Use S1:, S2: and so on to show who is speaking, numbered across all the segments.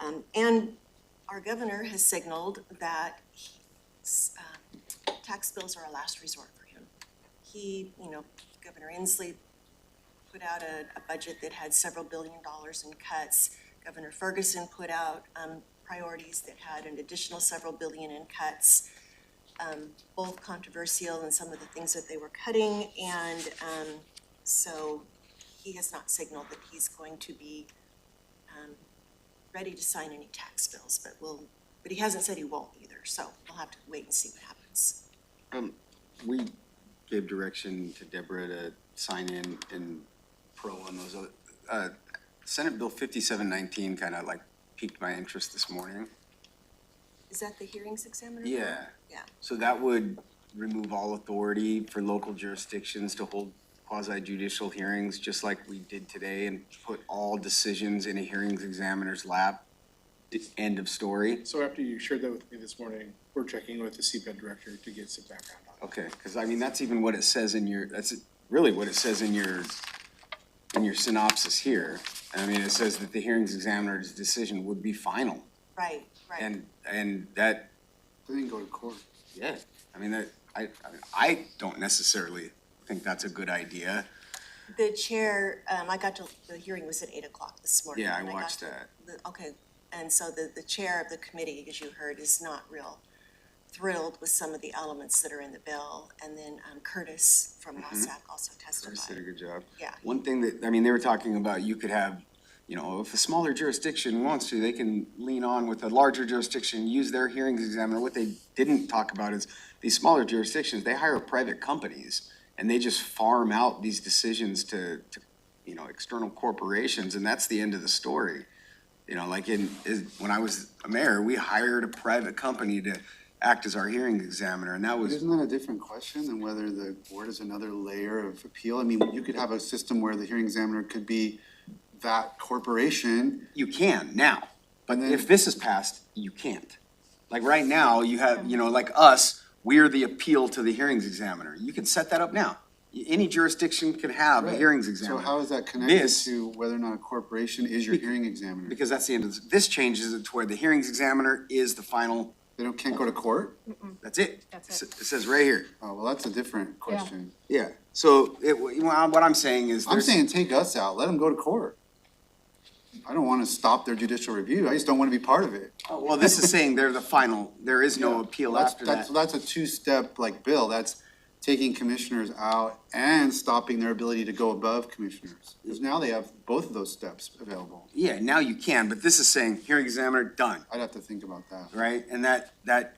S1: Um, and our governor has signaled that he's, um, tax bills are a last resort for him. He, you know, Governor Inslee put out a, a budget that had several billion dollars in cuts. Governor Ferguson put out, um, priorities that had an additional several billion in cuts. Um, both controversial in some of the things that they were cutting and, um, so he has not signaled that he's going to be, um, ready to sign any tax bills, but we'll, but he hasn't said he won't either, so we'll have to wait and see what happens.
S2: We gave direction to Deborah to sign in and pro on those other, uh, Senate Bill fifty-seven nineteen kind of like piqued my interest this morning.
S1: Is that the hearings examiner?
S2: Yeah,
S1: Yeah,
S2: so that would remove all authority for local jurisdictions to hold quasi judicial hearings, just like we did today, and put all decisions in a hearings examiner's lap. End of story.
S3: So after you shared that with me this morning, we're checking with the CPED director to get some background on it.
S2: Okay, because I mean, that's even what it says in your, that's really what it says in your, in your synopsis here. I mean, it says that the hearings examiner's decision would be final,
S1: right, right.
S2: and, and that,
S3: They didn't go to court.
S2: yeah, I mean, that, I, I mean, I don't necessarily think that's a good idea.
S1: The chair, um, I got to, the hearing was at eight o'clock this morning.
S2: Yeah, I
S1: and got
S2: watched
S1: to
S2: that.
S1: the- Okay, and so the, the chair of the committee, as you heard, is not real thrilled with some of the elements that are in the bill. And then um, Curtis from LoSAC also
S2: Mm-hmm. Curtis did a
S1: testified.
S2: good job.
S1: Yeah.
S2: One thing that, I mean, they were talking about, you could have, you know, if a smaller jurisdiction wants to, they can lean on with a larger jurisdiction, use their hearings examiner. What they didn't talk about is these smaller jurisdictions, they hire private companies and they just farm out these decisions to, to, you know, external corporations and that's the end of the story. You know, like in, is, when I was a mayor, we hired a private company to act as our hearing examiner and that
S4: But
S2: was,
S4: Isn't that a different question than whether the board is another layer of appeal? I mean, you could have a system where the hearing examiner could be that corporation.
S2: you can now.
S4: But
S2: If this is passed, you can't. Like right now, you have, you know, like us, we're the appeal to the hearings examiner. You can set that up now. Y- Any jurisdiction can have a hearings examiner.
S4: So how is that connected
S2: This-
S4: to whether or not a corporation is your hearing examiner?
S2: Because that's the end of this. This changes it to where the hearings examiner is the final,
S4: They don't, can't go to court?
S2: that's it.
S5: That's it.
S2: S- It says right here.
S4: Oh, well, that's a different question.
S2: Yeah. So it, w- well, what I'm saying is
S4: I'm
S2: there's.
S4: saying take us out, let them go to court. I don't want to stop their judicial review, I just don't want to be part of it.
S2: oh, Well, this is saying they're the final, there is no appeal
S4: That's-
S2: after
S4: that's-
S2: that.
S4: That's a two-step like bill, that's taking commissioners out and stopping their ability to go above commissioners. Because now they have both of those steps available.
S2: Yeah, now you can, but this is saying hearing examiner, done,
S4: I'd have to think about that.
S2: right? And that, that,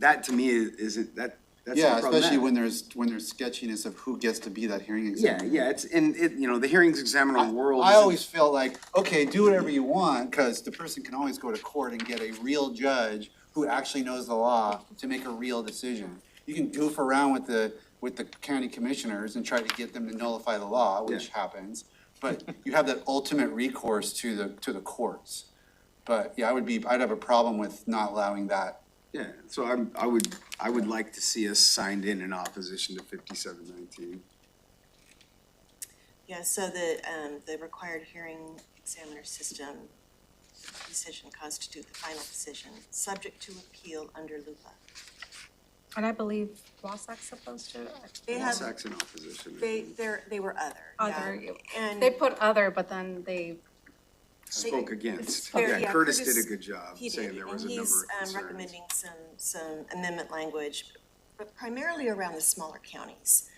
S2: that to me is- isn't, that, that's
S4: Yeah, especially
S2: problematic.
S4: when there's, when there's sketchiness of who gets to be that hearing
S2: Yeah,
S4: examiner.
S2: yeah, it's in, it, you know, the hearings examiner world.
S4: I
S2: is-
S4: always feel like, okay, do whatever you want, because the person can always go to court and get a real judge who actually knows the law to make a real decision. You can goof around with the, with the county commissioners and try to get them to nullify the law, which happens. But you have that ultimate recourse to the, to the courts. But yeah, I would be, I'd have a problem with not allowing that.
S2: Yeah, so I'm, I would, I would like to see us signed in in opposition to fifty-seven nineteen.
S1: Yeah, so the, um, the required hearing examiner system decision constitute the final decision, subject to appeal under LUPA.
S5: And I believe Wasak's supposed to,
S1: They have,
S2: Sax in opposition. I
S1: they,
S2: think.
S1: they're, they were other. yeah.
S5: other,
S1: And
S5: they put other, but then they,
S2: Spoke against.
S1: There-
S2: Yeah,
S1: yeah,
S2: Curtis
S1: Curtis-
S2: did a good job
S1: he
S2: saying
S1: did,
S2: there
S1: and
S2: was a number
S1: he's,
S2: of
S1: um,
S2: concerns.
S1: recommending some, some amendment language, but primarily around the smaller counties.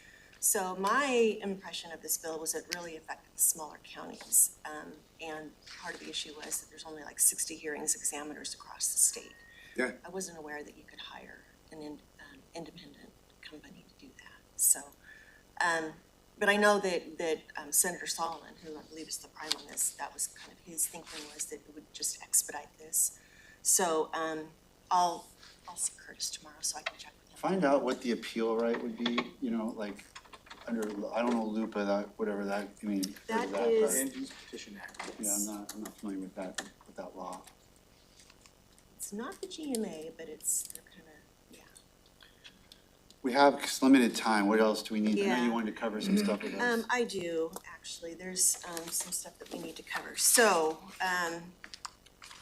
S1: So my impression of this bill was it really affected the smaller counties. Um, and part of the issue was that there's only like sixty hearings examiners across the state.
S2: Yeah,
S1: I wasn't aware that you could hire an in, um, independent company to do that, so. Um, but I know that, that um, Senator Solomon, who I believe is the prime on this, that was kind of his thinking was that it would just expedite this. So, um, I'll, I'll see Curtis tomorrow so I can check with him.
S4: Find out what the appeal right would be, you know, like, under, I don't know, LUPA, that, whatever that, I mean.
S1: That
S4: part.
S1: is-
S3: Land Use Petition Act.
S4: Yeah, I'm not, I'm not familiar with that, with that law.
S1: It's not the GMA, but it's, they're kind of, yeah.
S4: We have s- limited time, what else do we need? I know
S1: Yeah.
S4: you wanted to cover some stuff with us.
S1: Um, I do, actually, there's, um, some stuff that we need to cover. So, um,